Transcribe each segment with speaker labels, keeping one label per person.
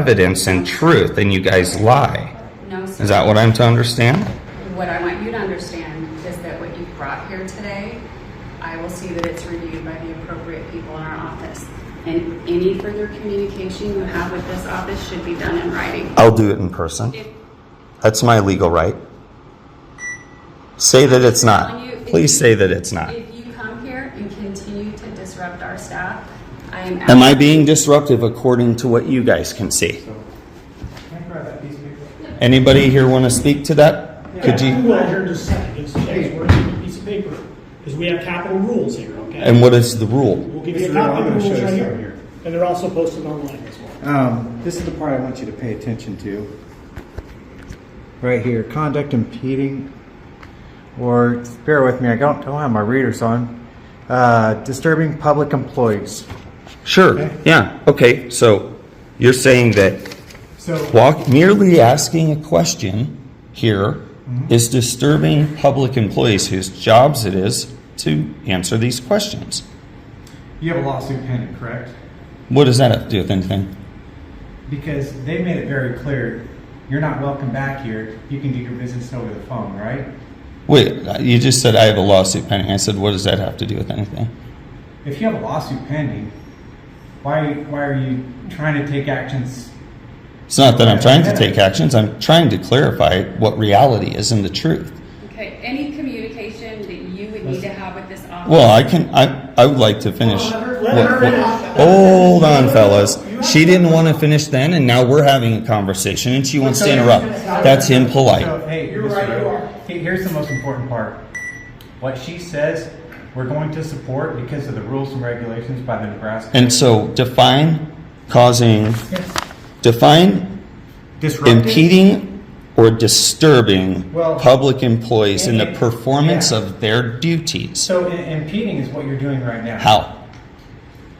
Speaker 1: evidence and truth, and you guys lie.
Speaker 2: No, sir.
Speaker 1: Is that what I'm to understand?
Speaker 2: What I want you to understand is that what you've brought here today, I will see that it's reviewed by the appropriate people in our office. And any further communication you have with this office should be done in writing.
Speaker 1: I'll do it in person.
Speaker 2: If
Speaker 1: That's my legal right. Say that it's not. Please say that it's not.
Speaker 2: if you come here and continue to disrupt our staff, I am.
Speaker 1: Am I being disruptive according to what you guys can see?
Speaker 3: Can I grab that piece of paper?
Speaker 1: Anybody here want to speak to that? Could
Speaker 4: I'm
Speaker 1: you?
Speaker 4: not here in just a second, it's Jay's working with a piece of paper, because we have capital rules here, okay?
Speaker 1: And what is the rule?
Speaker 4: We'll give you a
Speaker 3: Mr. Earl,
Speaker 4: copy
Speaker 3: I'm
Speaker 4: of the
Speaker 3: gonna show
Speaker 4: rules
Speaker 3: you
Speaker 4: right
Speaker 3: something here.
Speaker 4: here, and they're also posted online as well.
Speaker 3: Um, this is the part I want you to pay attention to. Right here, conduct impeding, or bear with me, I don't, don't have my readers on. Uh, disturbing public employees.
Speaker 1: Sure, yeah, okay, so you're saying that
Speaker 3: So,
Speaker 1: walk, merely asking a question here is disturbing public employees whose jobs it is to answer these questions.
Speaker 3: you have a lawsuit pending, correct?
Speaker 1: What does that have to do with anything?
Speaker 3: Because they made it very clear, you're not welcome back here, you can do your business over the phone, right?
Speaker 1: Wait, you just said I have a lawsuit pending. I said, what does that have to do with anything?
Speaker 3: If you have a lawsuit pending, why, why are you trying to take actions
Speaker 1: It's not that I'm trying to take actions. I'm trying to clarify what reality is and the truth.
Speaker 2: Okay, any communication that you would need to have with this office.
Speaker 1: Well, I can. I I would like to finish.
Speaker 4: Let her-
Speaker 1: what-
Speaker 4: let her
Speaker 1: what-
Speaker 4: finish.
Speaker 1: hold on, fellas. She didn't want to finish then, and now we're having a conversation, and she wants to interrupt. That's impolite.
Speaker 3: So, hey,
Speaker 4: You're
Speaker 3: Mr.
Speaker 4: right, you
Speaker 3: Wright,
Speaker 4: are.
Speaker 3: he- here's the most important part. What she says, we're going to support because of the rules and regulations by the Nebraska.
Speaker 1: And so define causing, define
Speaker 3: Disrupting-
Speaker 1: impeding or disturbing
Speaker 3: Well-
Speaker 1: public employees in the
Speaker 3: Yeah.
Speaker 1: performance of their duties.
Speaker 3: So i- impeding is what you're doing right now.
Speaker 1: How?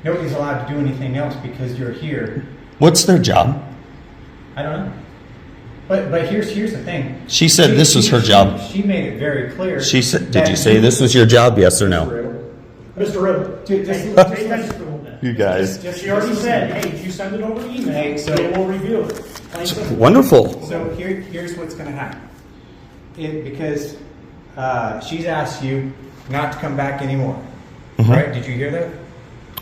Speaker 3: Nobody's allowed to do anything else because you're here.
Speaker 1: What's their job?
Speaker 3: I don't know. But, but here's, here's the thing.
Speaker 1: She said this was her
Speaker 3: she-
Speaker 1: job.
Speaker 3: She made it very clear.
Speaker 1: She said, did
Speaker 3: that-
Speaker 1: you say this was your job? Yes or no?
Speaker 4: Mr. Riddle, take
Speaker 3: Dude, just-
Speaker 4: take
Speaker 3: just-
Speaker 4: attention for a little bit.
Speaker 1: You guys.
Speaker 4: She already said, hey, if you send it over email,
Speaker 3: Hey, so-
Speaker 4: they will review it. Plain simple.
Speaker 1: Wonderful.
Speaker 3: So here, here's what's going to happen. It, because uh, she's asked you not to come back anymore. Right? Did you hear that?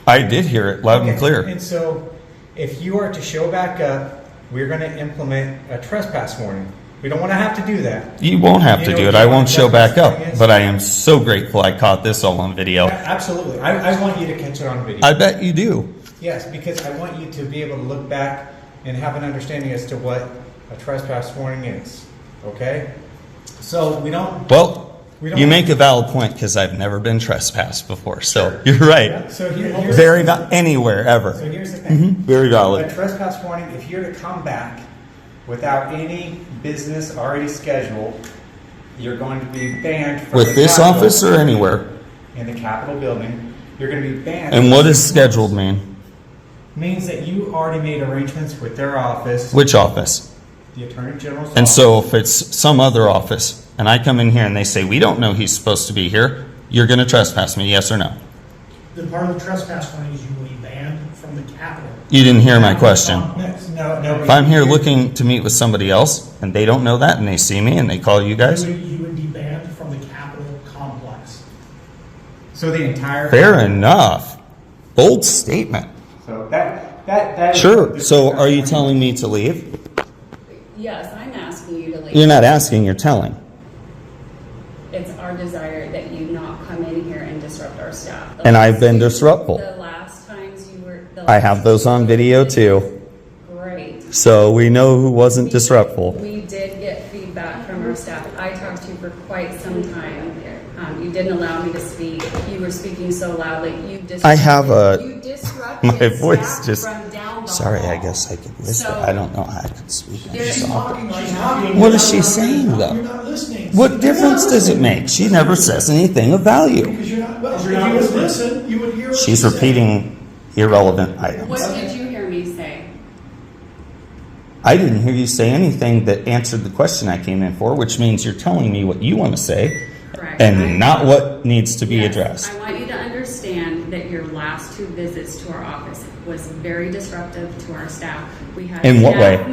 Speaker 1: I did hear it Mm-hmm. loud and
Speaker 3: Okay,
Speaker 1: clear.
Speaker 3: And so, if you are to show back up, we're going to implement a trespass warning. We don't want to have to do that.
Speaker 1: You won't have to
Speaker 3: You
Speaker 1: do
Speaker 3: know
Speaker 1: it. I
Speaker 3: what
Speaker 1: won't
Speaker 3: the
Speaker 1: show back
Speaker 3: thing
Speaker 1: up,
Speaker 3: is?
Speaker 1: but I am so grateful I caught this all on video.
Speaker 3: A- Absolutely. I, I want you to catch it on video.
Speaker 1: I bet you do.
Speaker 3: yes, because I want you to be able to look back and have an understanding as to what a trespass warning is. Okay? So, we don't.
Speaker 1: Well,
Speaker 3: We don't-
Speaker 1: you make a valid point because I've never been trespassed before. So you're right.
Speaker 3: So, here, here's,
Speaker 1: Very val- anywhere
Speaker 3: so
Speaker 1: ever.
Speaker 3: here's the thing.
Speaker 1: hmm Very
Speaker 3: A
Speaker 1: valid.
Speaker 3: trespass warning, if you're to come back without any business already scheduled, you're going to be banned from
Speaker 1: With
Speaker 3: the
Speaker 1: this
Speaker 3: Capitol-
Speaker 1: office or anywhere.
Speaker 3: in the Capitol building. You're going to be banned.
Speaker 1: And what is scheduled mean?
Speaker 3: means that you already made arrangements with their office,
Speaker 1: Which office?
Speaker 3: the Attorney General's
Speaker 1: And
Speaker 3: office.
Speaker 1: so if it's some other office and I come in here and they say, we don't know he's supposed to be here, you're going to trespass me, yes or no?
Speaker 4: The part of the trespass warning is you will be banned from the Capitol.
Speaker 1: You didn't hear my question.
Speaker 3: no, no.
Speaker 1: If I'm here looking to meet with somebody else and they don't know that and they see me and they call you
Speaker 4: You
Speaker 1: guys,
Speaker 4: would, you would be banned from the Capitol complex.
Speaker 3: so the entire
Speaker 1: fair enough. Bold statement.
Speaker 3: So that that that is-
Speaker 1: Sure. So are you telling me to leave?
Speaker 2: Yes, I'm asking you to leave.
Speaker 1: You're not asking, you're telling.
Speaker 2: It's our desire that you not come in here and disrupt our staff. The
Speaker 1: And
Speaker 2: last-
Speaker 1: I've been disruptful.
Speaker 2: The last times you were. the
Speaker 1: I have
Speaker 2: last-
Speaker 1: those on video too.
Speaker 2: Great.
Speaker 1: So we know who wasn't disruptful.
Speaker 2: We did get feedback from our staff. I talked to you for quite some time. Um, you didn't allow me to speak. You were speaking so loudly. You disrupted.
Speaker 1: I have a-
Speaker 2: You disrupted.
Speaker 1: My voice
Speaker 2: staff
Speaker 1: just,
Speaker 2: from down the
Speaker 1: sorry, I
Speaker 2: hall.
Speaker 1: guess I could listen.
Speaker 2: So-
Speaker 1: I don't know how I could speak. I'm
Speaker 2: There's-
Speaker 1: sorry.
Speaker 4: She's talking.
Speaker 1: What
Speaker 4: You're
Speaker 1: is
Speaker 4: not-
Speaker 1: she
Speaker 4: you're
Speaker 1: saying,
Speaker 4: not-
Speaker 1: though?
Speaker 4: You're not listening.
Speaker 1: What difference does it make? She never says anything of value.
Speaker 4: Because you're not, well, if you would listen, you would hear what she
Speaker 1: She's
Speaker 4: said.
Speaker 1: repeating irrelevant items.
Speaker 2: What did you hear me say?
Speaker 1: I didn't hear you say anything that answered the question I came in for, which means you're telling me what you want to say
Speaker 2: Correct. I-
Speaker 1: and not what needs to be
Speaker 2: Yes.
Speaker 1: addressed.
Speaker 2: I want you to understand that your last two visits to our office was very disruptive to our staff. We had
Speaker 1: In what
Speaker 2: staff
Speaker 1: way?